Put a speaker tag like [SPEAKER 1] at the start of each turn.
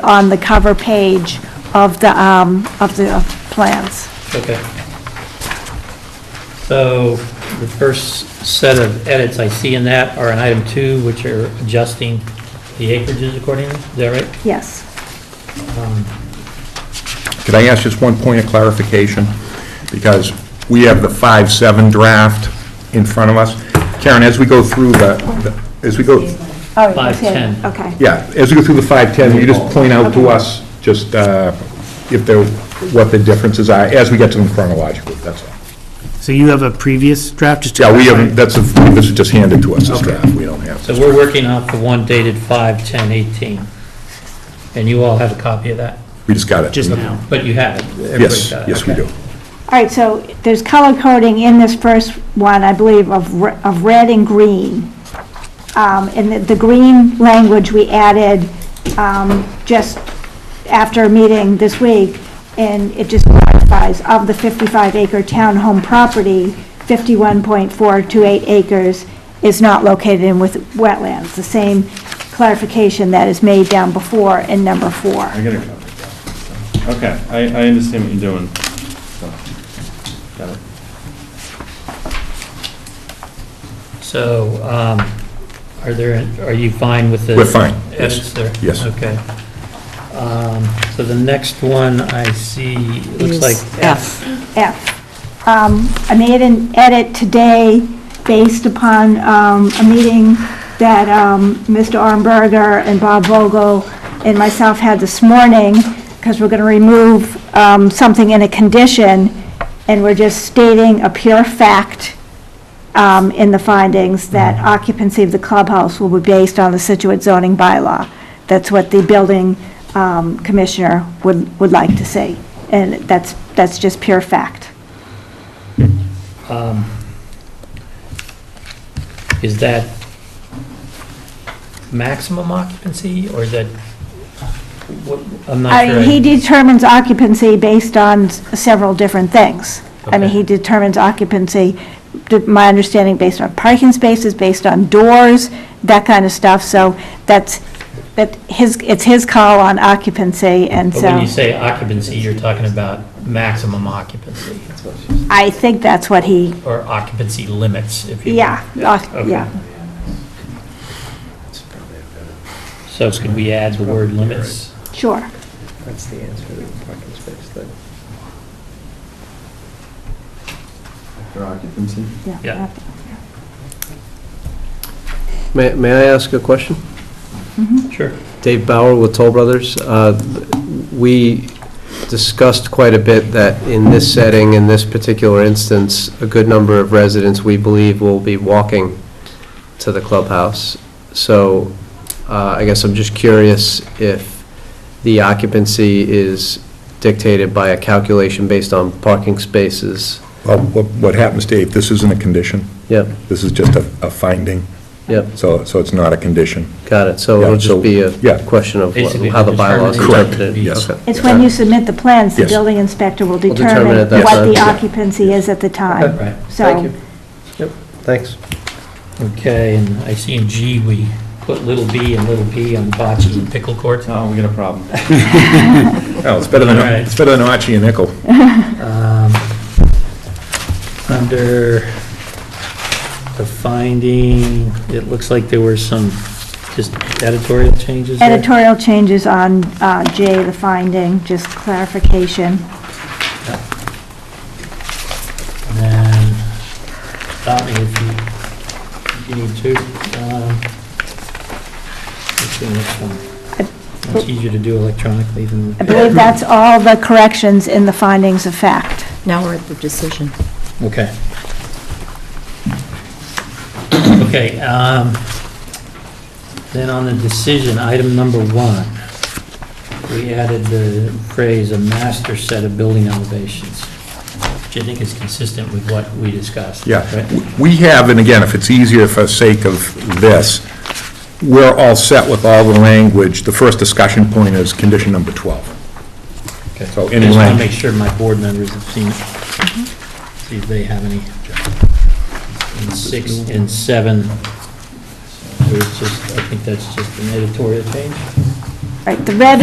[SPEAKER 1] on the cover page of the, um, of the plans.
[SPEAKER 2] Okay. So the first set of edits I see in that are in item two, which are adjusting the acreages accordingly, is that right? Um,
[SPEAKER 1] Yes.
[SPEAKER 3] Could I ask just one point of clarification? Because we have the 5-7 draft in front of us. Karen, as we go through the, the- as we go,
[SPEAKER 1] Oh, okay.
[SPEAKER 2] Five, ten.
[SPEAKER 1] Okay.
[SPEAKER 3] yeah, as we go through the 5-10, will you just point out to us just uh, if there, what the differences are, as we get to them chronologically, that's all.
[SPEAKER 4] So you have a previous draft, just to...
[SPEAKER 3] Yeah, we
[SPEAKER 4] clarify?
[SPEAKER 3] haven't, that's, a- this is just handed to us, this draft, we don't have.
[SPEAKER 2] So we're working off the one dated five, ten, eighteen. And you all have a copy of that,
[SPEAKER 3] We just got it.
[SPEAKER 4] Just now.
[SPEAKER 2] but you have it. Everybody's
[SPEAKER 3] Yes,
[SPEAKER 2] got it,
[SPEAKER 3] yes, we
[SPEAKER 2] okay.
[SPEAKER 3] do.
[SPEAKER 1] All right, so there's color coding in this first one, I believe, of, re- of red and green. Um, and the, the green language we added, um, just after a meeting this week, and it just clarifies, of the fifty-five acre townhome property, fifty-one point four two eight acres is not located in with wetlands, the same clarification that is made down before in number four.
[SPEAKER 5] I get it. Okay, I, I understand what you're doing. So, Got it.
[SPEAKER 2] So, um, are there, are you fine with the?
[SPEAKER 3] We're fine, yes.
[SPEAKER 2] Edits there?
[SPEAKER 3] Yes.
[SPEAKER 2] Okay. Um, So the next one I see, looks
[SPEAKER 6] Is
[SPEAKER 2] like
[SPEAKER 6] F.
[SPEAKER 2] F.
[SPEAKER 1] F. Um, I made an edit today based upon um, a meeting that um, Mr. Armberger and Bob Vogel and myself had this morning, because we're going to remove um, something in a condition, and we're just stating a pure fact um, in the findings
[SPEAKER 2] Mm.
[SPEAKER 1] that occupancy of the clubhouse will be based on the Situate zoning bylaw. That's what the building um, commissioner would, would like to see, and that's, that's just pure fact.
[SPEAKER 2] Um, Is that maximum occupancy, or is that, what- I'm not
[SPEAKER 1] I
[SPEAKER 2] sure.
[SPEAKER 1] mean, Uh, he determines occupancy based on s- several different things. I mean,
[SPEAKER 2] Okay.
[SPEAKER 1] he determines occupancy, d- my understanding, based on parking spaces, based on doors, that kind of stuff, so that's, that his, it's his call on occupancy, and
[SPEAKER 2] But when you
[SPEAKER 1] so
[SPEAKER 2] say occupancy, you're talking about maximum occupancy,
[SPEAKER 1] I think that's what he,
[SPEAKER 2] or occupancy limits, if you. will.
[SPEAKER 1] yeah, uh,
[SPEAKER 2] Okay.
[SPEAKER 1] yeah.
[SPEAKER 2] So could we add the word limits?
[SPEAKER 1] Sure.
[SPEAKER 7] That's the answer to the parking space thing.
[SPEAKER 5] For occupancy?
[SPEAKER 2] Yeah.
[SPEAKER 7] May, may I ask a question?
[SPEAKER 2] Sure.
[SPEAKER 7] Dave Bauer with Toll Brothers. Uh, We discussed quite a bit that in this setting, in this particular instance, a good number of residents, we believe, will be walking to the clubhouse. So uh, I guess I'm just curious if the occupancy is dictated by a calculation based on parking spaces.
[SPEAKER 3] Well, What what happens, Dave, this isn't a condition,
[SPEAKER 7] Yep,
[SPEAKER 3] this is just a a finding,
[SPEAKER 7] yep,
[SPEAKER 3] so so it's not a condition.
[SPEAKER 7] got it. So
[SPEAKER 3] Yeah,
[SPEAKER 7] it'll
[SPEAKER 3] so-
[SPEAKER 7] just be
[SPEAKER 3] yeah.
[SPEAKER 7] a question of what-
[SPEAKER 2] Basically,
[SPEAKER 7] how the
[SPEAKER 2] the
[SPEAKER 7] bylaws
[SPEAKER 2] determination
[SPEAKER 7] interpreted.
[SPEAKER 2] would be-
[SPEAKER 3] Yes.
[SPEAKER 7] Okay.
[SPEAKER 1] It's when you submit the plans, the
[SPEAKER 3] Yes.
[SPEAKER 1] building inspector will
[SPEAKER 7] determine
[SPEAKER 1] determine
[SPEAKER 7] at that
[SPEAKER 1] what the
[SPEAKER 7] time.
[SPEAKER 1] occupancy is at the time.
[SPEAKER 2] Right.
[SPEAKER 7] Thank
[SPEAKER 1] So,
[SPEAKER 7] you. Yep, thanks.
[SPEAKER 2] Okay, and I see in G, we put little b and little p on bocce and pickle courts.
[SPEAKER 5] Oh, we got a problem.
[SPEAKER 3] Oh, it's better than,
[SPEAKER 2] All right.
[SPEAKER 3] it's better than Archie and Nickel.
[SPEAKER 2] Um, Under the finding, it looks like there were some just editorial changes there.
[SPEAKER 1] editorial changes on uh, J, the finding, just clarification.
[SPEAKER 2] And then, stop me if you, if you need to. Um, Let's see next one. It's easier to do electronically than.
[SPEAKER 1] I believe that's all the corrections in the findings of fact.
[SPEAKER 6] Now we're at the decision.
[SPEAKER 2] Okay. Okay, um, then on the decision, item number one, we added the phrase "a master set of building elevations," which I think is consistent with what we discussed.
[SPEAKER 3] Yeah.
[SPEAKER 2] right?
[SPEAKER 3] We have, and again, if it's easier for sake of this, we're all set with all the language. The first discussion point is condition number 12.
[SPEAKER 2] Okay. I
[SPEAKER 3] So
[SPEAKER 2] just want
[SPEAKER 3] anyway-
[SPEAKER 2] to make sure my board members have seen it, see if they have any. In six and seven, there's just, I think that's just an editorial change.
[SPEAKER 1] Right, the red